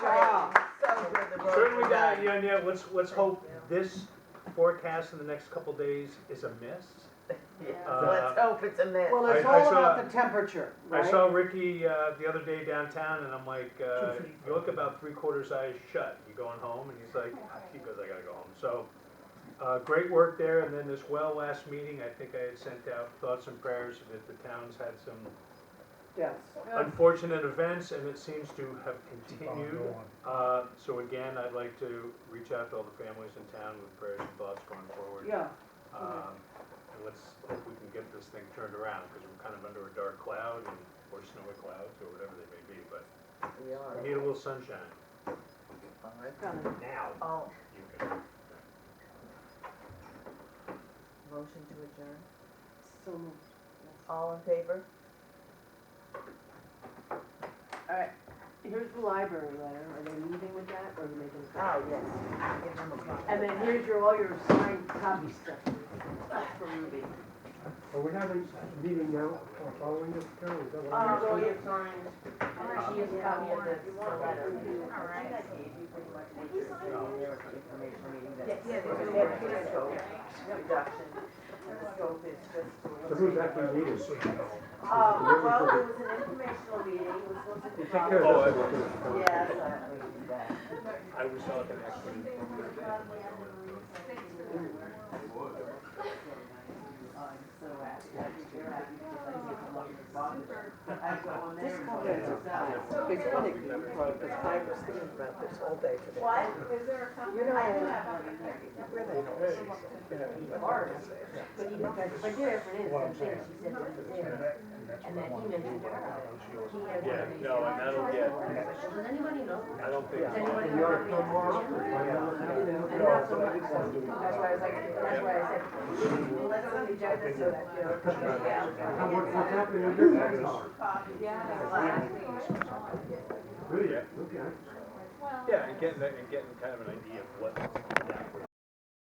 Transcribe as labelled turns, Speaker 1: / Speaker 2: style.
Speaker 1: we got any idea, let's, let's hope this forecast in the next couple days is a miss.
Speaker 2: Yeah,
Speaker 1: Uh,
Speaker 2: let's hope it's a myth.
Speaker 3: Well, it's
Speaker 1: I- I
Speaker 3: all
Speaker 1: saw-
Speaker 3: about the temperature,
Speaker 1: I
Speaker 3: right?
Speaker 1: saw Ricky, uh, the other day downtown and I'm like, uh, you look about three quarters eyes shut, you going home? And he's like, he goes, I gotta go home. So, uh, great work there and then this well last meeting, I think I had sent out thoughts and prayers that the town's had some
Speaker 3: Yes.
Speaker 1: unfortunate events and it seems to have continued.
Speaker 4: Go
Speaker 1: Uh,
Speaker 4: on.
Speaker 1: so again, I'd like to reach out to all the families in town with prayers and thoughts going forward.
Speaker 3: Yeah,
Speaker 1: Um, and let's hope we can get this thing turned around, because we're kind of under a dark cloud and, or snowy clouds, or whatever they may be, but
Speaker 2: We are.
Speaker 1: we need a little sunshine.
Speaker 2: All right.
Speaker 3: kinda.
Speaker 1: Now.
Speaker 2: Oh,
Speaker 1: you can-
Speaker 2: motion to adjourn.
Speaker 3: So moved. Yes.
Speaker 2: All in favor?
Speaker 3: All right, here's the library letter, are they meeting with that, or are you making a
Speaker 2: Oh,
Speaker 3: copy?
Speaker 2: yes. Give them a
Speaker 1: Ah.
Speaker 2: copy.
Speaker 3: And then here's your, all your signed copy stuff for Ruby.
Speaker 4: Are we having a meeting now, or following this, Carol, is that what
Speaker 2: Uh,
Speaker 4: I'm
Speaker 2: well,
Speaker 4: asking?
Speaker 2: you signed, she has a copy of this letter.
Speaker 5: All right.
Speaker 2: I gave you pretty much what you're doing there at the information meeting that.
Speaker 5: Yeah, yeah,
Speaker 2: The
Speaker 5: yeah.
Speaker 2: head of scope reduction, and the scope is just to.
Speaker 4: So who's
Speaker 2: eliminate-
Speaker 4: actually meeting?
Speaker 3: Oh,
Speaker 2: Uh, well, it was an informational meeting, it was supposed to.
Speaker 4: You take care of this.
Speaker 2: Yes, I believe that.
Speaker 1: I was out the next one.
Speaker 2: I'm so happy that you're happy because I get to look at the bottom. I go on there. and look
Speaker 3: This
Speaker 2: at the side.
Speaker 3: It's funny, because I was
Speaker 6: thinking about this all day today.
Speaker 2: What?
Speaker 5: Is there a company?
Speaker 2: You know,
Speaker 5: I do
Speaker 2: I-
Speaker 5: have one in there.
Speaker 6: Where the hell is it? You know, you got
Speaker 2: Ours.
Speaker 6: this there.
Speaker 3: But he, but but there it is,
Speaker 4: What
Speaker 3: right
Speaker 4: I'm
Speaker 3: there, she said
Speaker 4: saying.
Speaker 3: it was
Speaker 4: And
Speaker 3: there.
Speaker 4: that-
Speaker 3: And then he mentioned her.
Speaker 4: and that's what I wanted to do, but I know she was-
Speaker 3: He had
Speaker 7: Yeah,
Speaker 3: one.
Speaker 7: no, and that'll get,
Speaker 3: Does anybody know?
Speaker 7: I don't think.
Speaker 3: Does anybody
Speaker 4: You ought to
Speaker 3: know?
Speaker 4: come off,
Speaker 3: Yeah.
Speaker 4: I know.
Speaker 3: You know, and
Speaker 4: No,
Speaker 3: that's
Speaker 4: but
Speaker 3: what
Speaker 4: I
Speaker 3: I-
Speaker 4: just wanna do it.
Speaker 3: That's why I was like, that's why I said, well, let's not be judging so that, you know.
Speaker 4: How much, what's happening in your tax dollars?
Speaker 5: Yeah.
Speaker 4: Really, okay.
Speaker 7: Yeah, and getting, that- and getting kind of an idea of what that would